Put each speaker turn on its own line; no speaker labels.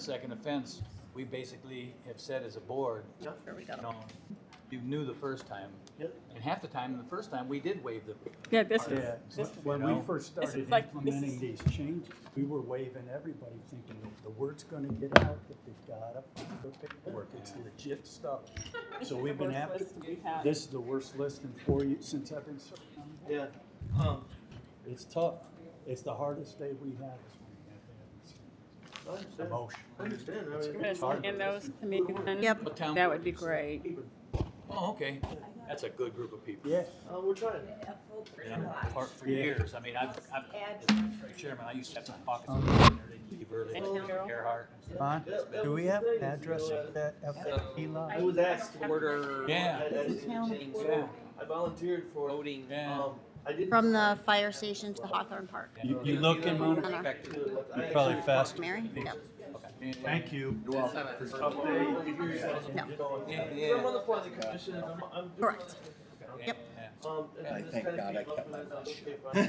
second offense, we basically have said as a board, you
There we go.
know, you knew the first time.
Yep.
And half the time, the first time, we did waive the,
Yeah, this is,
Yeah,
this,
when
you know,
we first started
like- this
implementing
is-
these changes, we were waving everybody thinking that the word's gonna get out, that they've gotta find their paperwork, it's legit stuff. So we've been happy, this is the worst list in four years, since I've been serving.
Yeah. Um,
It's tough, it's the hardest day we have is when we have to have these changes.
I understand.
Emotion.
I understand. I mean,
this and those committees,
Yep.
what town?
that would be
Uh,
great.
Oh, okay, that's a good group of people.
Yeah,
uh, we're trying.
You know, For, for
Yeah.
years, I mean, I've, I've, as chairman, I used to have some pockets of money there, they'd leave early,
And
Oh,
Carol?
Gerhard.
Ron,
That- that
do we
was the
have an
thing,
address
you know,
for that FFP lot?
I was asked to order.
Yeah.
I, I, didn't change, so I volunteered for voting.
Yeah.
Um, I didn't.
From the fire station to Hawthorne Park.
you, you look and monitor.
You're
Probably fast.
Mary? No.
Thank you.
Yeah,
I'm on the
yeah.
planning commission. and I'm, I'm doing
Correct.
it.
Yep.
yeah.
Um, and
I
this
thank
kind of
God I
came up
kept
and
my
I was
mouth
like,
shut.
okay, fine.